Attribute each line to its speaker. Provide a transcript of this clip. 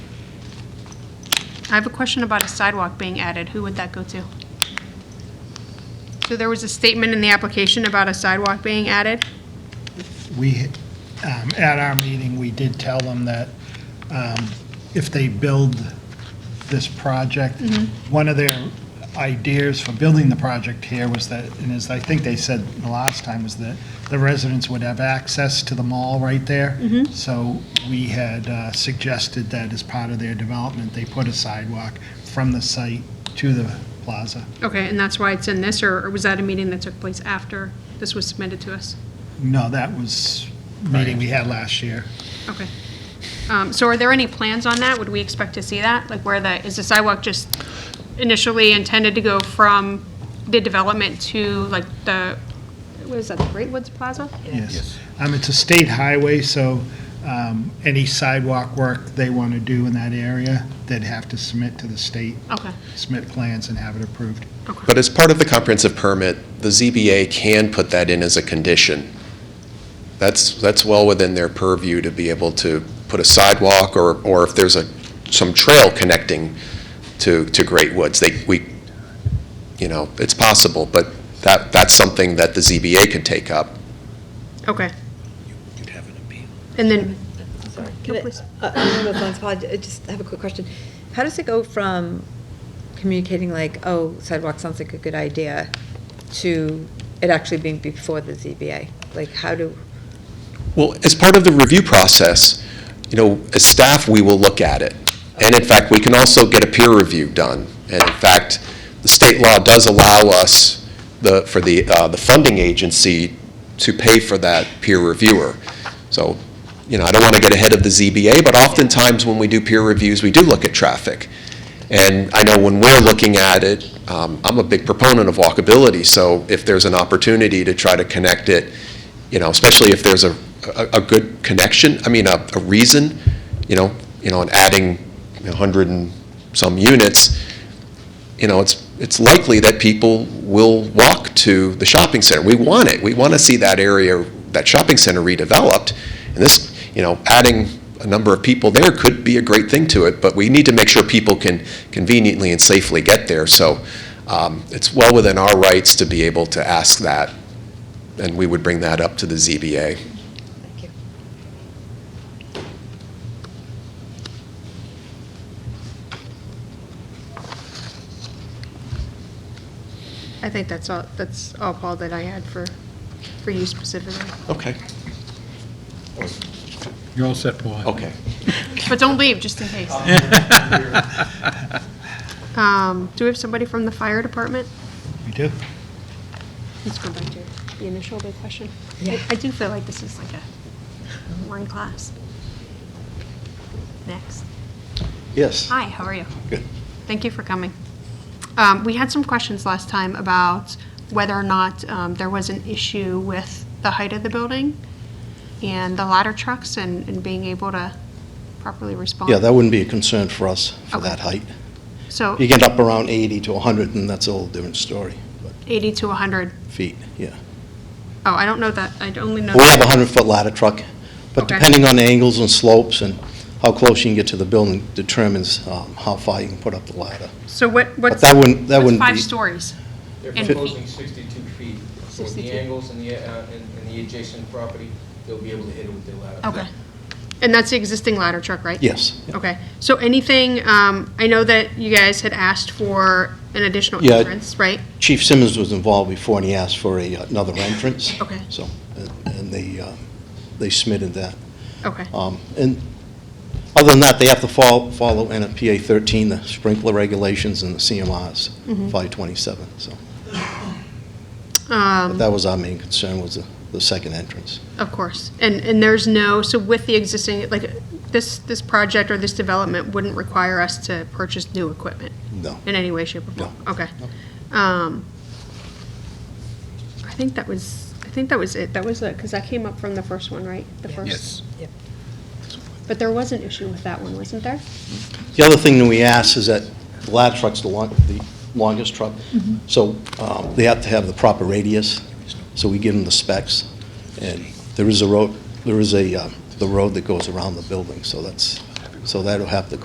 Speaker 1: I have a question about a sidewalk being added. Who would that go to? So there was a statement in the application about a sidewalk being added?
Speaker 2: We, um, at our meeting, we did tell them that um, if they build this project, one of their ideas for building the project here was that, and as I think they said the last time, was that the residents would have access to the mall right there. So we had uh, suggested that as part of their development, they put a sidewalk from the site to the plaza.
Speaker 1: Okay, and that's why it's in this, or or was that a meeting that took place after this was submitted to us?
Speaker 2: No, that was meeting we had last year.
Speaker 1: Okay. Um, So are there any plans on that? Would we expect to see that? Like where the, is the sidewalk just initially intended to go from the development to like the, what is that, the Great Woods Plaza?
Speaker 2: Yes. Um, It's a state highway, so um, any sidewalk work they want to do in that area, they'd have to submit to the state,
Speaker 1: Okay,
Speaker 2: submit plans and have it approved.
Speaker 3: But as part of the comprehensive permit, the ZBA can put that in as a condition. That's, that's well within their purview to be able to put a sidewalk or, or if there's a, some trail connecting to, to Great Woods, they, we, you know, it's possible, but that, that's something that the ZBA could take up.
Speaker 1: okay. And then,
Speaker 4: Can I-
Speaker 1: please.
Speaker 4: uh, I don't know if Lon's apology- I just have a quick question. How does it go from communicating like, oh, sidewalk sounds like a good idea, to it actually being before the ZBA? Like, how do,
Speaker 3: Well, as part of the review process, you know, as staff, we will look at it. And in fact, we can also get a peer review done. And in fact, the state law does allow us, the, for the, uh, the funding agency to pay for that peer reviewer. So, you know, I don't want to get ahead of the ZBA, but oftentimes when we do peer reviews, we do look at traffic. And I know when we're looking at it, um, I'm a big proponent of walkability, so if there's an opportunity to try to connect it, you know, especially if there's a, a, a good connection, I mean, a, a reason, you know, you know, and adding a hundred and some units, you know, it's, it's likely that people will walk to the shopping center. We want it. We want to see that area, that shopping center redeveloped. And this, you know, adding a number of people there could be a great thing to it, but we need to make sure people can conveniently and safely get there. So um, it's well within our rights to be able to ask that, and we would bring that up to the ZBA.
Speaker 4: thank you.
Speaker 1: I think that's all, that's all, Paul, that I had for, for you specifically.
Speaker 3: Okay.
Speaker 5: You're all set, Paul.
Speaker 3: Okay.
Speaker 1: But don't leave, just in case. Um, Do we have somebody from the fire department?
Speaker 2: We do?
Speaker 1: Let's go back to the initial big question.
Speaker 4: Yeah.
Speaker 1: I- I do feel like this is like a one class. Next.
Speaker 3: Yes.
Speaker 1: Hi, how are you?
Speaker 3: Good.
Speaker 1: Thank you for coming. Um, We had some questions last time about whether or not um, there was an issue with the height of the building and the ladder trucks and and being able to properly respond.
Speaker 6: Yeah, that wouldn't be a concern for us for
Speaker 1: Okay.
Speaker 6: that height.
Speaker 1: So
Speaker 6: You get up around 80 to 100, and that's a whole different story, but
Speaker 1: 80 to 100,
Speaker 6: feet, yeah.
Speaker 1: oh, I don't know that, I only know.
Speaker 6: But we have a 100-foot ladder truck, but
Speaker 1: Okay.
Speaker 6: depending on the angles and slopes and how close you can get to the building determines um, how far you can put up the ladder.
Speaker 1: So what,
Speaker 6: But
Speaker 1: what's,
Speaker 6: that wouldn't, that
Speaker 1: what's
Speaker 6: wouldn't
Speaker 1: five
Speaker 6: be,
Speaker 1: stories?
Speaker 7: They're
Speaker 1: And-
Speaker 7: proposing 62 feet, so with
Speaker 1: 62.
Speaker 7: the angles and the, uh, and and the adjacent property, they'll be able to hit it with their ladder.
Speaker 1: Okay. And that's the existing ladder truck, right?
Speaker 6: yes.
Speaker 1: Okay, so anything, um, I know that you guys had asked for an additional
Speaker 6: Yeah.
Speaker 1: entrance, right?
Speaker 6: Chief Simmons was involved before, and he asked for a, uh, another entrance.
Speaker 1: Okay.
Speaker 6: So, and- and they, uh, they submitted that.
Speaker 1: Okay,
Speaker 6: Um, And other than that, they have to fol- follow NFPA 13, the sprinkler regulations and the CMRs, 527, so. But that was our main concern, was the- the second entrance.
Speaker 1: of course. And, and there's no, so with the existing, like, this, this project or this development wouldn't require us to purchase new equipment
Speaker 6: No.
Speaker 1: in any way, shape, or form? Okay. Um, I think that was, I think that was it. That was it, because that came up from the first one, right? The first.
Speaker 5: Yes.
Speaker 4: Yep.
Speaker 1: But there was an issue with that one, wasn't there?
Speaker 6: The other thing that we asked is that the ladder truck's the long, the longest truck, so um, they have to have the proper radius, so we give them the specs. And there is a road, there is a, uh, the road that goes around the building, so that's, so that'll have to